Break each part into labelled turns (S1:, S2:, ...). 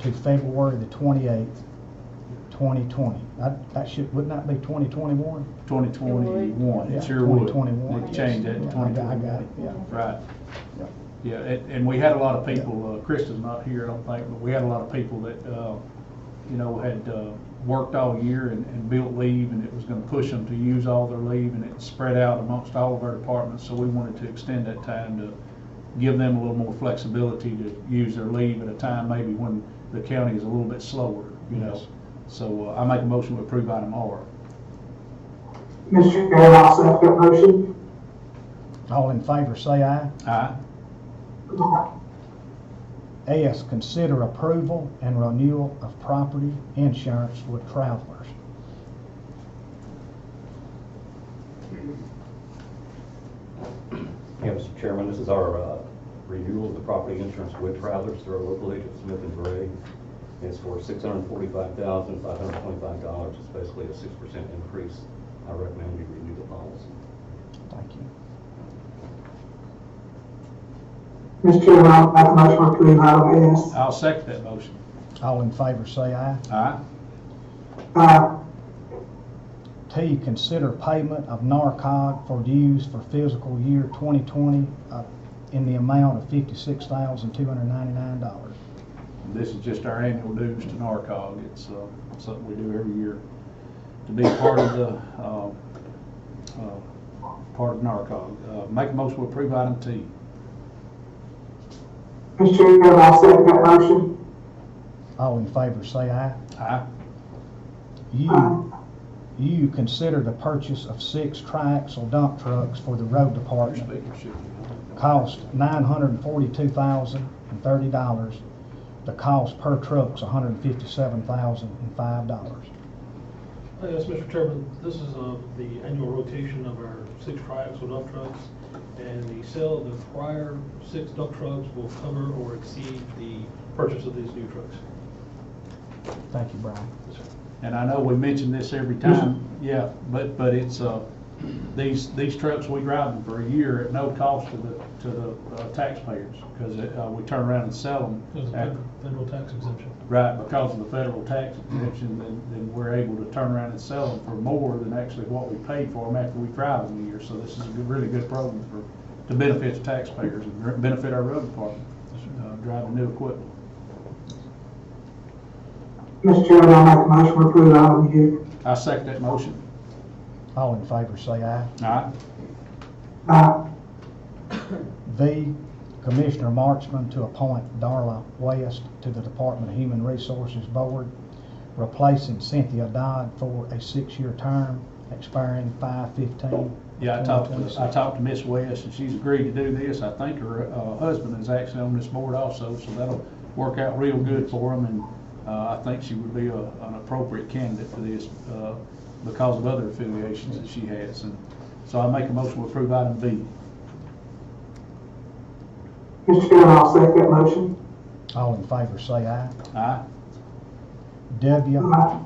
S1: to February the twenty-eighth, twenty twenty. That, that should, wouldn't that be twenty twenty-one?
S2: Twenty twenty-one, it sure would.
S1: Twenty twenty-one.
S2: They changed that to
S1: I
S2: twenty
S1: got I got it,
S2: twenty-one.
S1: yeah.
S2: Right.
S1: Yeah.
S2: Yeah, and, and we had a lot of people, uh, Krista's not here, I don't think, but we had a lot of people that, uh, you know, had, uh, worked all year and, and built leave, and it was gonna push them to use all their leave, and it spread out amongst all of our departments, so we wanted to extend that time to give them a little more flexibility to use their leave at a time maybe when the county is a little bit slower, you know? So, uh, I make a motion to approve item R.
S3: Mr. Chairman, I'll second that motion.
S1: All in favor, say aye.
S2: Aye.
S1: S, consider approval and renewal of property insurance with travelers.
S4: Yeah, Mr. Chairman, this is our uh, renewal of the property insurance with Travelers through our local agent Smith and Gray. It's for $645,525. It's basically a 6% increase. I recommend we renew the policy.
S1: Thank you.
S3: Mr. Chairman, I'll make a motion to approve item S.
S2: I'll second that motion.
S1: All in favor, say aye.
S2: Aye.
S3: Uh,
S1: T, consider payment of NARCOG for dues for fiscal year 2020 uh, in the amount of $56,299.
S2: This is just our annual dues to NARCOG. It's uh, something we do every year to be part of the, uh, uh, part of NARCOG. Uh, Make a motion to approve item T.
S3: Mr. Chairman, I'll second that motion.
S1: All in favor, say aye.
S2: Aye.
S1: U, U, consider the purchase of six triaxle dump trucks for the road
S2: Your
S1: department.
S2: speaker should be-
S1: Cost $942,030. The cost per truck's $157,005.
S5: Uh, Yes, Mr. Chairman, this is uh, the annual rotation of our six triaxle dump trucks, and the sale of the prior six dump trucks will cover or exceed the purchase of these new trucks.
S1: Thank you, Brian.
S2: And I know we mention this every time, yeah, but, but it's, uh, these, these trucks, we drive them for a year at no cost to the, to the uh, taxpayers because we turn around and sell
S5: There's a
S2: them after,
S5: fed- federal tax exemption.
S2: Right, because of the federal tax exemption, then, then we're able to turn around and sell them for more than actually what we paid for them after we drive them a year. So this is a good- really good program for, to benefit the taxpayers and benefit our road department, uh, driving new equipment.
S3: Mr. Chairman, I'll make a motion to approve item U.
S2: I second that motion.
S1: All in favor, say aye.
S2: Aye.
S3: Uh,
S1: V, Commissioner Marchman to appoint Darla West to the Department of Human Resources Board, replacing Cynthia Dodd for a six-year term expiring 5/15.
S2: Yeah, I talked to, I talked to Miss West and she's agreed to do this. I think her, uh, husband is actually on this board also, so that'll work out real good for him and, uh, I think she would be a, an appropriate candidate for this, uh, because of other affiliations that she has. And so I make a motion to approve item B.
S3: Mr. Chairman, I'll second that motion.
S1: All in favor, say aye.
S2: Aye.
S1: W,
S3: Uh,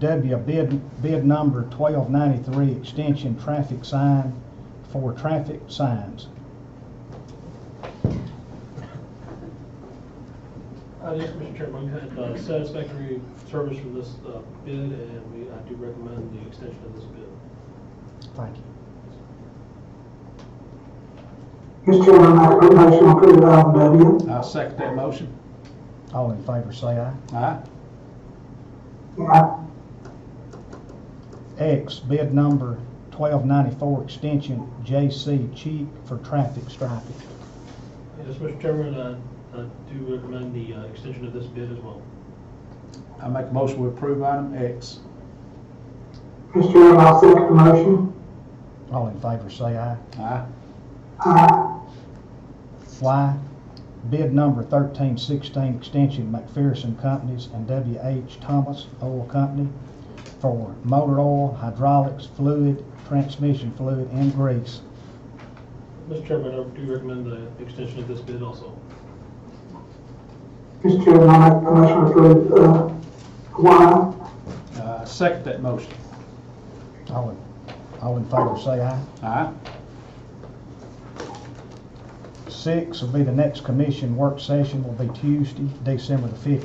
S1: W, bid, bid number 1293, extension traffic sign for traffic signs.
S5: Uh, Yes, Mr. Chairman, we had uh, satisfactory service from this uh, bid, and we, I do recommend the extension of this bid.
S1: Thank you.
S3: Mr. Chairman, I'll make a motion to approve item W.
S2: I second that motion.
S1: All in favor, say aye.
S2: Aye.
S3: Uh,
S1: X, bid number 1294, extension JC Cheek for traffic striping.
S5: Yes, Mr. Chairman, I I do recommend the uh, extension of this bid as well.
S2: I make a motion to approve item X.
S3: Mr. Chairman, I'll second the motion.
S1: All in favor, say aye.
S2: Aye.
S3: Uh,
S1: Y, bid number 1316, extension McPherson Companies and W.H. Thomas Oil Company for motor oil, hydraulics, fluid, transmission fluid, and grease.
S5: Mr. Chairman, I do recommend the extension of this bid also.
S3: Mr. Chairman, I'll make a motion to approve, uh, Y.
S2: Uh, second that motion.
S1: All in, all in favor, say aye.
S2: Aye.
S1: Six will be the next commission work session, will be Tuesday, December the 15th.